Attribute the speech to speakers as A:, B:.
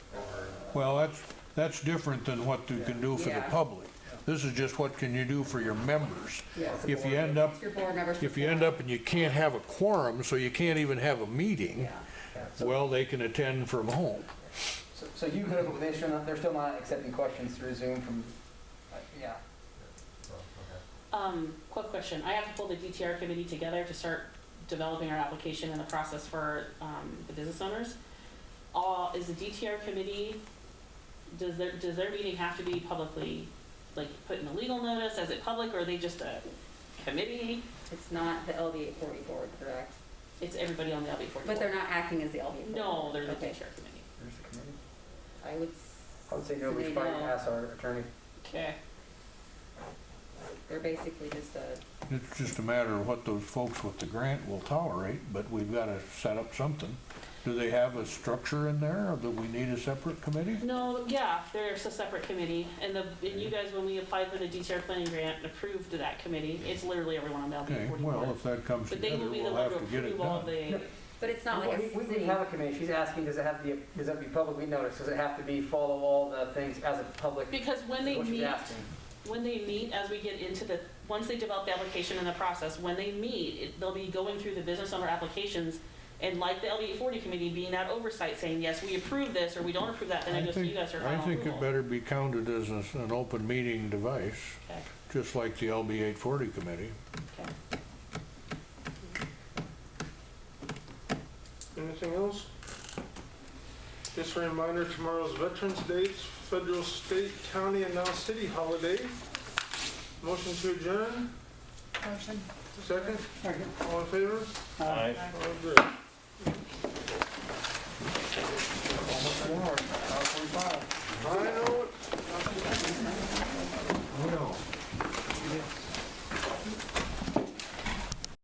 A: Well, that's, that's different than what you can do for the
B: Yeah.
A: public. This is just what can you do for your members.
B: Yes.
A: If you end up,
B: It's your board members.
A: if you end up and you can't have a quorum, so you can't even have a meeting,
B: Yeah.
C: Yeah, So,
A: well, they can attend from home.
C: so- so you could, have- they're still not, they're still not accepting questions through Zoom from, uh, yeah.
D: Um, quick question, I have to pull the DTR committee together to start developing our application and the process for, um, the business owners. All, is the DTR committee, does their, does their meeting have to be publicly, like, put in a legal notice, as it public, or are they just a committee?
B: It's not the LB forty board, correct?
D: It's everybody on the LB forty-four?
B: But they're not acting as the LB.
D: No, they're the
B: Okay.
D: DTR committee.
C: There's the committee.
B: I would,
C: I would say no, we should probably ask our attorney.
D: Okay.
B: they're basically just a,
A: It's just a matter of what those folks with the grant will tolerate, but we've got to set up something. Do they have a structure in there, or do we need a separate committee?
D: No, yeah, there's a separate committee, and the, and you guys, when we applied for the DTR planning grant, approved that committee, it's literally everyone on the LB
A: Okay,
D: forty-four.
A: well, if that comes
D: But they
A: together,
D: will be the
A: we'll
D: one
A: have
D: to
A: to get it
D: approve all
A: done.
D: the,
B: but it's not
C: Well,
B: like
C: we-
B: a
C: We, we
B: city.
C: have a committee, she's asking, does it have to be, does it have to be publicly noticed? Does it have to be follow all the things as a public?
D: because when they
C: What she's
D: meet,
C: asking.
D: when they meet, as we get into the, once they develop the application and the process, when they meet, it- they'll be going through the business owner applications, and like the LD forty committee, being that oversight, saying, yes, we approve this, or we don't approve that, then
A: I
D: it goes to you
A: think,
D: guys for
A: I
D: final
A: think it
D: approval.
A: better be counted as an an open meeting device,
D: Okay,
A: just like the LB 840 committee.
D: okay.
E: Anything else? Just a reminder, tomorrow's Veterans Day, it's federal, state, county, and now city holiday. Motion to adjourn? Motion. Second? Second. All in favor? Aye. All agree.